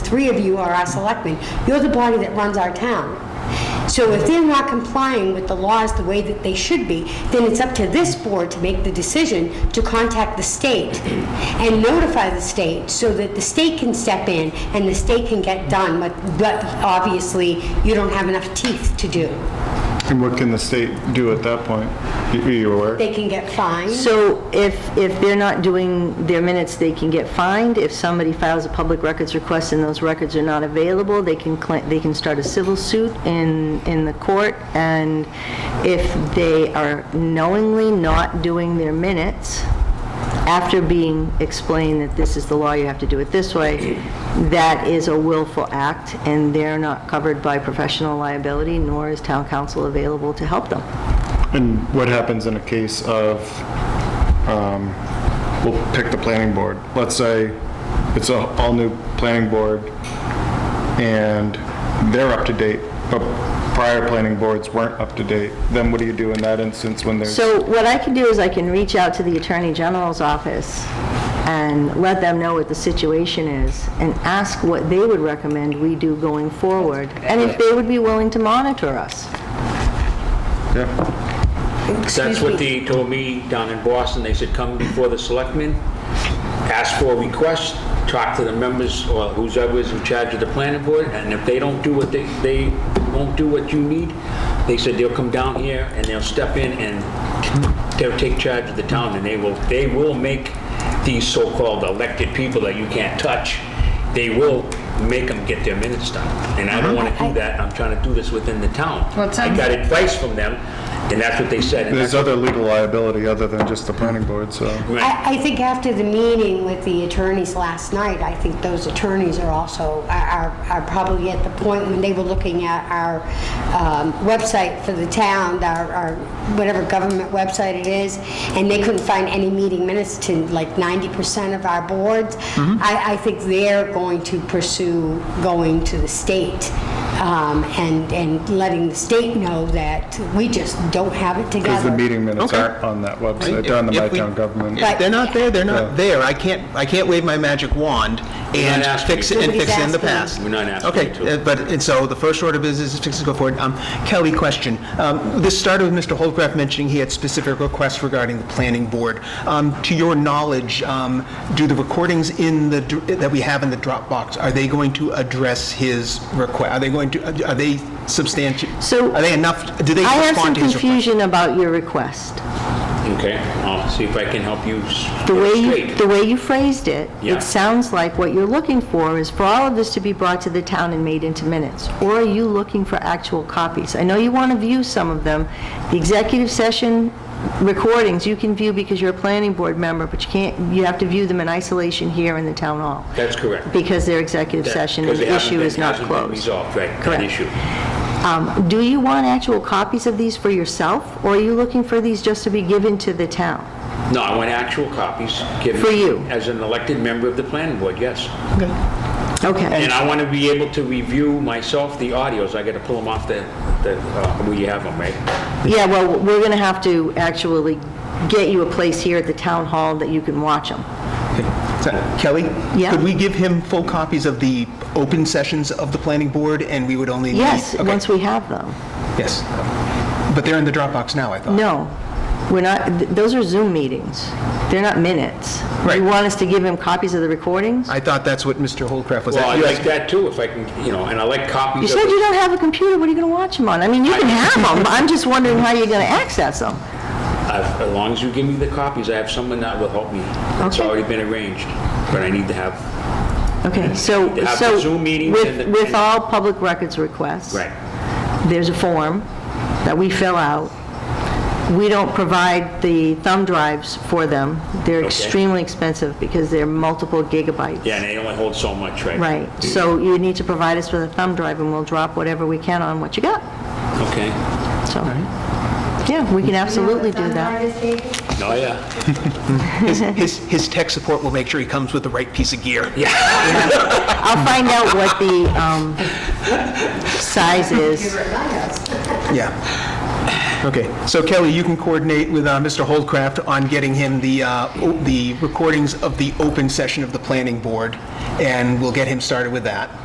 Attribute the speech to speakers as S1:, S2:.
S1: three of you are our selectmen. You're the body that runs our town. So if they're not complying with the laws the way that they should be, then it's up to this board to make the decision to contact the state and notify the state so that the state can step in and the state can get done what, what obviously you don't have enough teeth to do.
S2: And what can the state do at that point? Y- Are you aware?
S1: They can get fined.
S3: So if, if they're not doing their minutes, they can get fined. If somebody files a public records request and those records are not available, they can, cla- they can start a civil suit in, in the court. And if they are knowingly not doing their minutes, after being explained that this is the law, you have to do it this way, that is a willful act, and they're not covered by professional liability, nor is town council available to help them.
S2: And what happens in a case of, um, we'll pick the planning board. Let's say it's a all-new planning board and they're up to date, but prior planning boards weren't up to date. Then what do you do in that instance when there's?
S3: So what I can do is I can reach out to the Attorney General's office and let them know what the situation is and ask what they would recommend we do going forward, and
S4: Uh,
S3: if they would be willing to monitor us.
S2: Yeah.
S1: Excuse
S5: That's what
S1: me.
S5: they told me down in Boston. They said, come before the selectmen, ask for a request, talk to the members or whoever is in charge of the planning board, and if they don't do what they, they won't do what you need, they said they'll come down here and they'll step in and they'll take charge of the town and they will, they will make these so-called elected people that you can't touch, they will make them get their minutes done. And I don't want to do that. I'm trying to do this within the town.
S6: Well, it sounds-
S5: I got advice from them, and that's what they said. and
S2: There's other legal liability other than just the planning board, so.
S1: I, I think after the meeting with the attorneys last night, I think those attorneys are also, are, are- are probably at the point when they were looking at our um, website for the town, our, our, whatever government website it is, and they couldn't find any meeting minutes to like 90% of our boards.
S2: Mm-hmm.
S1: I, I think they're going to pursue going to the state um, and, and letting the state know that we just don't have it together.
S2: Because the meeting minutes
S4: Okay.
S2: aren't on that website, they're on the My
S4: If we-
S2: Town Government.
S4: If they're not there, they're
S2: Yeah.
S4: not there. I can't, I can't wave my magic wand and
S5: not asking
S4: fix
S5: you
S4: it,
S5: to.
S4: and fix it in the
S1: Nobody's
S4: past.
S1: asking
S5: you. We're not asking you to.
S4: Okay, uh, but, and so the first order of business is fix it, go forward. Um, Kelly, question. Um, This started with Mr. Holdcraft mentioning he had specific requests regarding the planning board. Um, To your knowledge, um, do the recordings in the, dr- that we have in the Dropbox, are they going to address his request? Are they going to, are they substantial?
S3: So-
S4: Are they enough, do they
S3: I have some
S4: respond to his request?
S3: confusion about your request.
S5: Okay, I'll see if I can help you s-
S3: The way you,
S5: straight.
S3: the way you phrased it,
S5: Yeah.
S3: it sounds like what you're looking for is for all of this to be brought to the town and made into minutes. Or are you looking for actual copies? I know you want to view some of them. The executive session recordings, you can view because you're a planning board member, but you can't, you have to view them in isolation here in the town hall.
S5: That's correct.
S3: Because they're executive
S5: That-
S3: session and
S5: 'cause it
S3: the
S5: hasn't
S3: issue
S5: been-
S3: is not
S5: hasn't been
S3: closed.
S5: resolved, right, that
S3: Correct.
S5: issue.
S3: Um, Do you want actual copies of these for yourself? Or are you looking for these just to be given to the town?
S5: No, I want actual copies given.
S3: For you.
S5: As an elected member of the planning board, yes.
S3: Okay.
S5: And I want to be able to review myself the audios. I got to pull them off the, the, uh, where you have them, right?
S3: Yeah, well, we're going to have to actually get you a place here at the town hall that you can watch them.
S4: So, Kelly?
S3: Yeah.
S4: Could we give him full copies of the open sessions of the planning board, and we would only need...
S3: Yes,
S4: Okay,
S3: once we have them.
S4: Yes. But they're in the Dropbox now, I thought.
S3: No, we're not, th- those are Zoom meetings. They're not minutes.
S4: Right.
S3: You want us to give him copies of the recordings?
S4: I thought that's what Mr. Holdcraft was
S5: Well, I
S4: asking.
S5: like that too, if I can, you know, and I like
S3: You
S5: copies of
S3: said you
S5: it.
S3: don't have a computer, what are you going to watch them on? I mean, you can have them, I'm just wondering how you're going to access them.
S5: I've- As long as you give me the copies, I have someone that will help me. It's
S3: Okay.
S5: already been arranged, but I need to have,
S3: Okay, so,
S5: They have the
S3: so
S5: Zoom meetings and
S3: with,
S5: the-
S3: with all public records requests.
S5: right.
S3: there's a form that we fill out. We don't provide the thumb drives for them. They're
S5: Okay.
S3: extremely expensive because they're multiple gigabytes.
S5: Yeah, and they only hold so much, right?
S3: Right, so you need to provide us with a thumb drive and we'll drop whatever we can on what you got.
S5: Okay.
S3: So, yeah, we can absolutely do that.
S1: that.
S5: Oh, yeah.
S4: His- His his tech support will make sure he comes with the right piece of gear.
S3: I'll find out what the um, size is.
S4: Yeah. Okay, so Kelly, you can coordinate with uh, Mr. Holdcraft on getting him the, uh, o- the recordings of the open session of the planning board, and we'll get him started with that.